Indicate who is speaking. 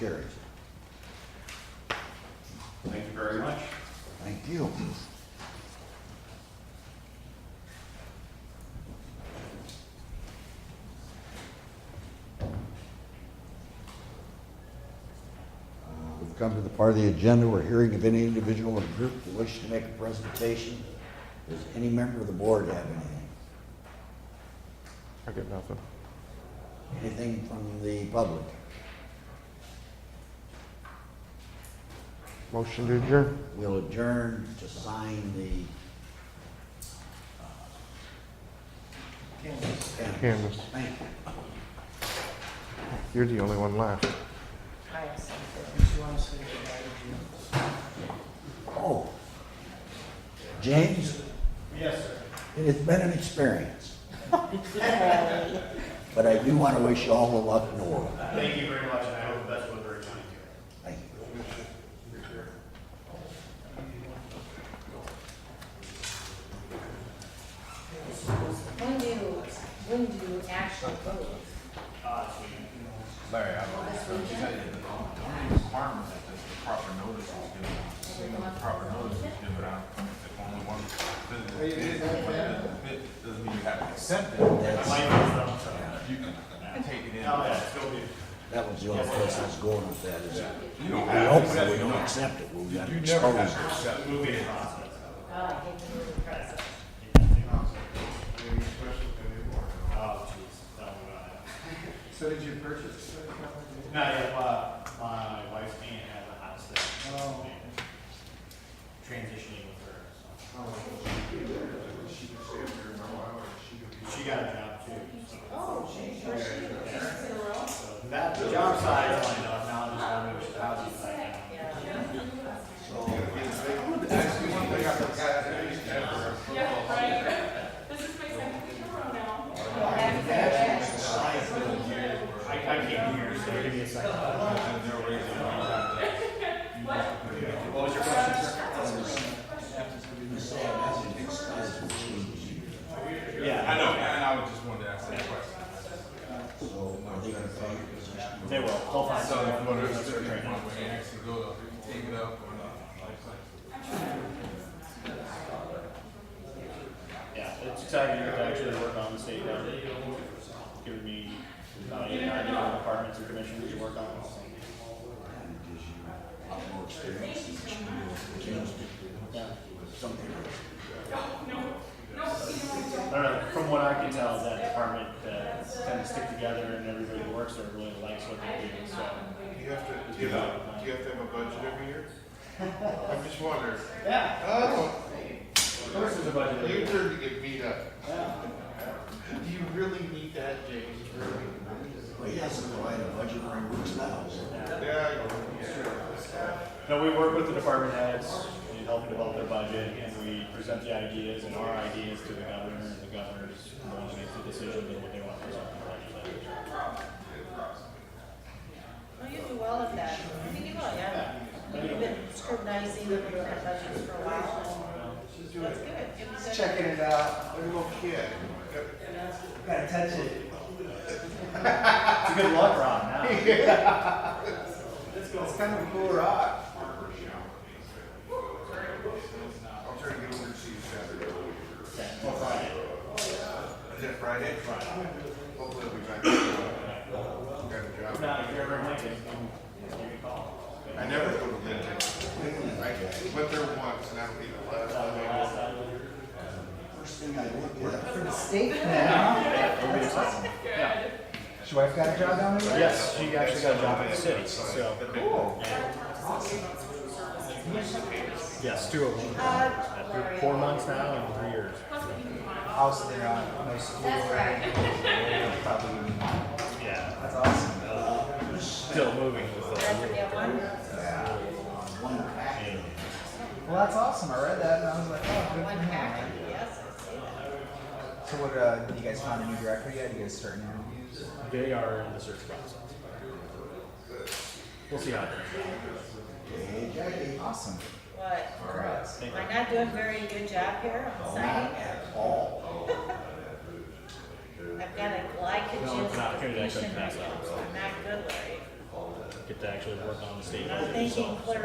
Speaker 1: Carries.
Speaker 2: Thank you very much.
Speaker 1: Thank you. Uh, We've come to the part of the agenda where hearing of any individual or group who wish to make a presentation. Does any member of the board have anything?
Speaker 3: I get nothing.
Speaker 1: Anything from the public?
Speaker 3: Motion to adjourn.
Speaker 1: We'll adjourn to sign the uh, canvas.
Speaker 3: Candace,
Speaker 1: Thank you.
Speaker 3: you're the only one left.
Speaker 4: I have something. If you want to say goodbye to Jim.
Speaker 1: Oh. James,
Speaker 2: Yes, sir.
Speaker 1: it has been an experience. But I do want to wish you all the luck in the world.
Speaker 2: Thank you very much, and I hope the best with Berry County.
Speaker 1: Thank you.
Speaker 5: When do, you- when do you actually vote?
Speaker 6: Larry, I don't, so you said that the only requirement is that the proper notice is given. The proper notice is given out, if only one, the, the, fit doesn't mean you have to accept it.
Speaker 2: My
Speaker 1: That's,
Speaker 2: mic is up,
Speaker 6: You can take it in.
Speaker 2: so- Oh, yeah, it's going to be-
Speaker 1: that was the only place I was going with that is,
Speaker 6: You don't
Speaker 1: we
Speaker 6: have to
Speaker 1: hope that
Speaker 6: accept
Speaker 1: we
Speaker 6: it.
Speaker 1: don't accept it, we've got to
Speaker 6: You
Speaker 1: expose
Speaker 6: never have to
Speaker 1: it.
Speaker 6: accept it.
Speaker 2: Moving in process.
Speaker 5: Oh, I hate to do the process.
Speaker 2: Oh, jeez. No, uh,
Speaker 7: So did you purchase? it?
Speaker 2: Not yet, uh, my wife's aunt has a house that.
Speaker 7: Oh.
Speaker 2: Transitioning with her, so.
Speaker 7: Oh, she did. She could stay up there for a while, or she could be.
Speaker 2: She got a job too, so.
Speaker 5: Where's Oh, she, she's in a row?
Speaker 2: So That, the job size lined up, now I'm just wondering which house is like.
Speaker 7: Actually, one thing I forgot to do is never-
Speaker 8: This is my second week in a row now.
Speaker 5: Happy birthday.
Speaker 2: I, I can't hear, so give me a second. What was your question, sir?
Speaker 6: I
Speaker 2: Yeah,
Speaker 6: know, and I was just wanted to ask that question.
Speaker 1: So are they going to pay your position?
Speaker 2: they will, they'll find
Speaker 6: So, if you want to,
Speaker 2: someone.
Speaker 6: if you want to actually go, take it up or not.
Speaker 2: Yeah, it's exciting to actually work on the state government, giving me, uh, you know, different departments or commissions to work on.
Speaker 1: And gives you a lot more experience and experience to change it.
Speaker 2: Yeah.
Speaker 1: Something else.
Speaker 2: I don't know, from what I can tell, that department, uh, kind of stick together and everybody who works there really likes what they do, so.
Speaker 7: Do you have to, do you have, do you have to have a budget every year? I'm just wondering.
Speaker 2: Yeah,
Speaker 7: Oh,
Speaker 2: of course there's a budget.
Speaker 7: you turn to get beat up. Do you really need that, James? Really?
Speaker 1: Well, he hasn't provided a budget for a week's now, so.
Speaker 7: Yeah, I know. it's true.
Speaker 2: No, we work with the department heads, we help develop their budget, and we present the ideas and our ideas to the governor, and the governor's the one who makes the decision on what they want to present in the legislature.
Speaker 5: Well, you do well at that. I think you will, yeah. You've been scrutinizing the different budgets for a while.
Speaker 7: She's
Speaker 5: and
Speaker 7: doing
Speaker 5: That's
Speaker 7: it.
Speaker 5: good. Give us a-
Speaker 7: Checking it out. Every little kid.
Speaker 2: It's a good luck rod now.
Speaker 7: It's kind of a cool rock. I'll try to get over to see you Saturday.
Speaker 2: Okay, well, Friday.
Speaker 7: Is that Friday? Friday. Hopefully I'll be back. Got a job.
Speaker 2: Now, if you're ever in Lincoln, give me a call.
Speaker 7: I never go to Lincoln. I went there once and I don't eat a lot of time.
Speaker 1: First thing I look at.
Speaker 2: It'll be exciting. Yeah.
Speaker 9: His wife got a job down there?
Speaker 2: Yes, she actually got a job in the city, so. Yes, two of them.
Speaker 5: Uh,
Speaker 2: Four months now and three years.
Speaker 9: House there on nice
Speaker 5: That's right.
Speaker 9: probably would be mine.
Speaker 2: Yeah.
Speaker 9: That's awesome.
Speaker 2: Still moving. was
Speaker 5: Did I
Speaker 2: the-
Speaker 5: forget one?
Speaker 1: One pack.
Speaker 9: Well, that's awesome. I read that and I was like, oh, good for
Speaker 5: One
Speaker 9: him.
Speaker 5: pack,
Speaker 9: man.
Speaker 5: yes, I see that.
Speaker 9: So what, uh, you guys found a new director yet? You guys starting interviews?
Speaker 2: They are in the search process. We'll see how it goes.
Speaker 1: Hey, Jackie.
Speaker 9: Awesome.
Speaker 5: What?
Speaker 9: Congrats.
Speaker 2: Thank
Speaker 5: Am I not doing a very good job here on
Speaker 1: Oh, Not
Speaker 5: signing?
Speaker 1: at all. Oh,
Speaker 5: I've got a
Speaker 2: No, it's not.
Speaker 5: glycogen
Speaker 2: Here, that
Speaker 5: deficiency,
Speaker 2: doesn't
Speaker 5: right
Speaker 2: pass
Speaker 5: now,
Speaker 2: out.
Speaker 5: so I'm not good, Larry.
Speaker 2: you. get to actually work on the state
Speaker 5: I'm
Speaker 2: budget
Speaker 5: thinking
Speaker 2: itself.
Speaker 5: clear